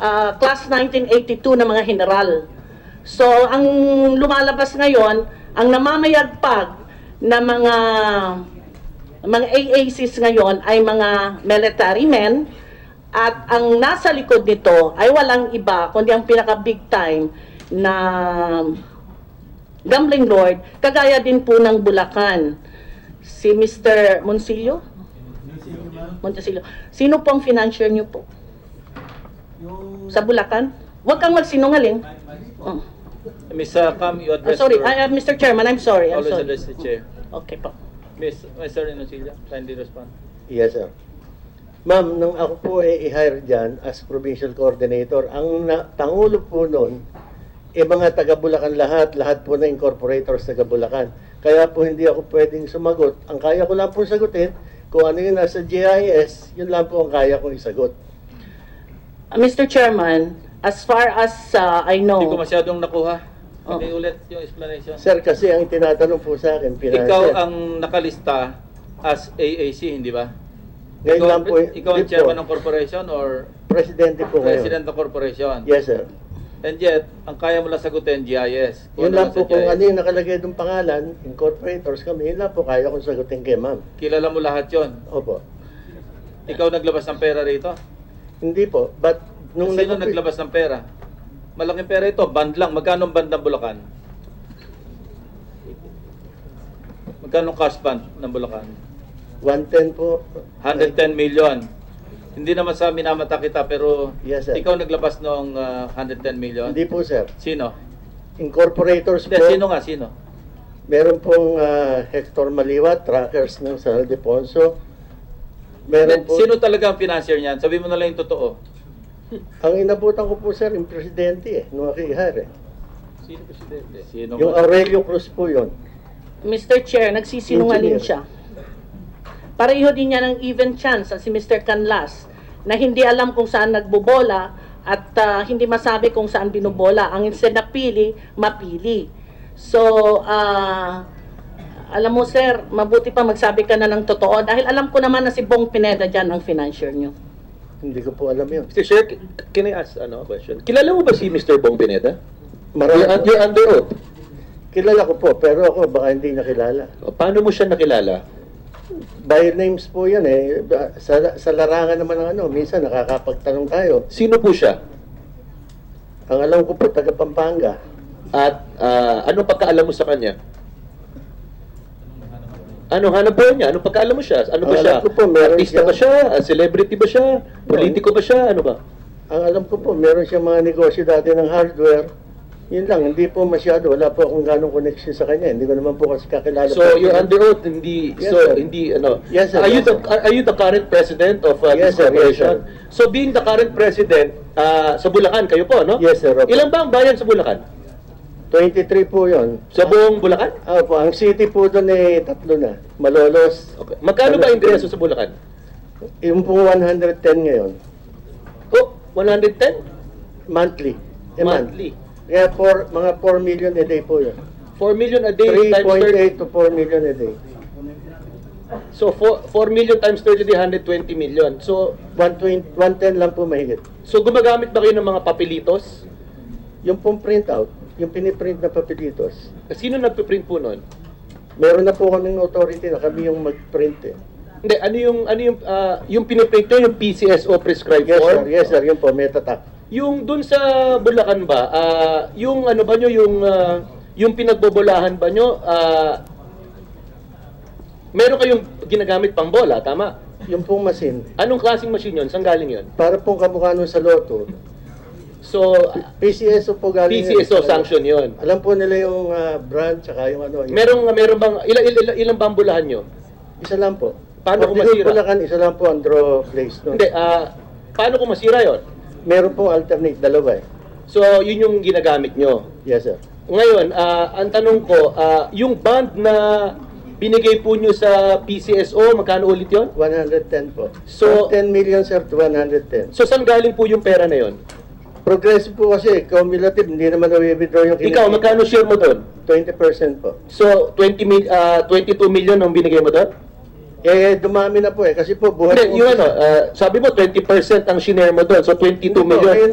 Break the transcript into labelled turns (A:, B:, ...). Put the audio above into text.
A: ah, class 1982 na mga general. So, ang lumalabas ngayon, ang namamayagpag na mga mga AACs ngayon ay mga military men at ang nasa likod nito ay walang iba kundi ang pinaka big time na gambling lord kagaya din po ng Bulacan si Mr. Monsillo Montesillo sino po ang financier niyo po sa Bulacan Huwag kang magsinungaling. Oh.
B: Miss uh, Cam,
A: Ah,
B: you address
A: sorry,
B: your-
A: I, ah, Mr. Chairman, I'm sorry. I'm
B: Always
A: sorry.
B: address the chair.
A: Okay po.
B: Miss, Mr. Inosilla, kindly respond.
C: Yes, sir. Ma'am, nung ako po ay i-hire dyan as provincial coordinator, ang na, tangulo po noon, eh mga taga-Bulacan lahat, lahat po na incorporators taga-Bulacan. Kaya po hindi ako pwedeng sumagot. Ang kaya ko lang po sagutin, kung ano yung nasa GIS, yun lang po ang kaya kong isagot.
A: Ah, Mr. Chairman, as far as ah, I know,
B: Hindi ko masyadong nakuha.
A: Oh.
B: Hindi ulit yung explanation.
C: Sir, kasi ang tinatanong po sa akin, financial.
B: Ikaw ang nakalista as AAC, hindi ba?
C: Ngayon
B: ikaw,
C: lang po, eh.
B: ikaw ang
C: hindi
B: chairman
C: po.
B: ng corporation or
C: Presidente po ngayon.
B: president ng corporation?
C: Yes, sir.
B: And yet, ang kaya mo lang sagutin, GIS.
C: Yun
B: ano
C: lang po
B: sa
C: kung
B: GIS.
C: ano yung nakalagay ng pangalan, incorporators kami, yun lang po kaya kong sagutin kay ma'am.
B: Kilala mo lahat yon.
C: Opo.
B: Ikaw naglabas ng pera rito?
C: Hindi po, but nung
B: Nung Sino
C: nag-
B: naglabas ng pera? Malaking pera ito, band lang. Magkano ang band ng Bulacan? Magkano ang cash band ng Bulacan?
C: 110 po.
B: 110 million. Hindi naman sa minamata kita pero
C: Yes, sir.
B: ikaw naglabas ng ah, 110 million.
C: Hindi po, sir.
B: Sino?
C: Incorporators
B: Hindi,
C: po.
B: sino nga? Sino?
C: Meron pong ah, Hector Maliwa, trackers ng San Ildefonso. Meron
B: Hindi,
C: po.
B: Sino talaga ang financier niyan? Sabi mo na lang yung totoo.
C: Ang inabutan ko po, sir, yung presidente eh, nung ako ihari.
B: Sino presidente? Sino
C: Yung
B: nga?
C: Aurelio Cruz po yun.
A: Mr. Chair, nagsisinungaling
C: Engineer.
A: siya. Pareho din niya ng even chance ah, si Mr. Canlas na hindi alam kung saan nagbobola at ah, hindi masabi kung saan binubola. Ang instead na pili, mapili. So, ah, alam mo sir, mabuti pa magsabi ka na ng totoo dahil alam ko naman na si Bong Pineda dyan ang financier niyo.
C: Hindi ko po alam yun.
D: Mr. Chair, c- can I ask ano, a question? Kilala mo ba si Mr. Bong Pineda?
C: Marami
D: You're, un-
C: po.
D: you're under oath.
C: Kilala ko po, pero ako baka hindi niya kilala.
D: O, Paano mo siya nakilala?
C: By names po yan eh. Sa, sa larangan naman ng ano, minsan nakakapagtanong tayo.
D: Sino po siya?
C: Ang alam ko po, taga Pampanga.
D: At ah, anong pagkaalam mo sa kanya? Ano hanap po niya? Anong pagkaalam mo siya? Ano ba
C: Ang
D: siya?
C: Ah, alam ko po, meron
D: Artista
C: siya-
D: ba siya? Ah, Celebrity ba siya? Politiko ba siya? Ano ba?
C: Ang alam ko po, meron siyang mga negosyo dati ng hardware. Yun lang, hindi po masyado. Wala po akong ganong connection sa kanya. Hindi ko naman po kasi kakilala.
D: So
C: po.
D: you're under oath, hindi
C: Yes,
D: so
C: sir.
D: hindi ano.
C: Yes, sir.
D: Are you
C: Yes,
D: the
C: sir.
D: are, are you the current president of uh,
C: Yes,
D: this
C: sir. Yes, sir.
D: corporation? So being the current president ah, sa Bulacan kayo po, no?
C: Yes, sir. Opo.
D: Ilan ba ang bayan sa Bulacan?
C: 23 po yun.
D: Sa buong Bulacan?
C: Ah, po, ang city po doon eh, tatlo na. Malolos.
D: Okay. Magkano ba ang ingreso sa Bulacan?
C: Yung po 110 ngayon.
D: Oh, 110
C: Monthly. A month.
D: monthly.
C: Kaya four, mga 4 million a day po yun.
D: 4 million a day times
C: 3.8
D: 30.
C: to 4 million a day.
D: So 4, 4 million times 30 di 120 million. So
C: 120, 110 lang po mahigit.
D: so gumagamit ba kayo ng mga papelitos?
C: Yung pong printout, yung piniprint na papelitos,
D: Sino nagpe-print po noon?
C: meron na po kaming authority na kami yung mag-print eh.
D: Hindi, ano yung ano yung ah, yung piniprint nyo, yung PCSO prescribed
C: Yes sir,
D: form?
C: yes sir, yun po, metatak.
D: Yung dun sa Bulacan ba, ah, yung ano ba nyo, yung, ah, yung pinagbobolahan ba nyo, ah, meron kayong ginagamit pang bola, tama?
C: Yung pong masin,
D: Anong klaseng machine yun? Saan galing yun?
C: para pong kamukha nun sa loto,
D: So, ah,
C: PCSO po galing. yun.
D: PCSO sanction yun.
C: Alam po nila yung ah, brand, tsaka yung ano. Yung,
D: Merong, meron bang, ilang, ilang, ilang ba ang bulahan nyo?
C: Isa lang po.
D: Paano kung
C: Pagdigo
D: masira?
C: Bulacan, isa lang po ang draw place nun.
D: Hindi, ah, paano kung masira yun?
C: Meron pong alternate, dalawa eh.
D: So, yun yung ginagamit nyo.
C: Yes sir.
D: Ngayon, ah, ang tanong ko, ah, yung band na binigay po nyo sa PCSO, magkano ulit yon?
C: 110 po.
D: So-
C: From 10 million sir to 110.
D: So, saan galing po yung pera na yon?
C: Progressive po kasi, cumulative, hindi naman na-withdraw yung
D: Ikaw, magkano share mo doon?
C: 20% po.
D: So, 20 mil, ah, 22 million ang binigay mo doon?
C: Eh, dumami na po eh. Kasi po, buhay
D: Hindi, ano,
C: po-
D: yung ano, ah, sabi mo 20% ang shinare mo doon, so
C: Hindi
D: 22
C: po,
D: million.
C: ayun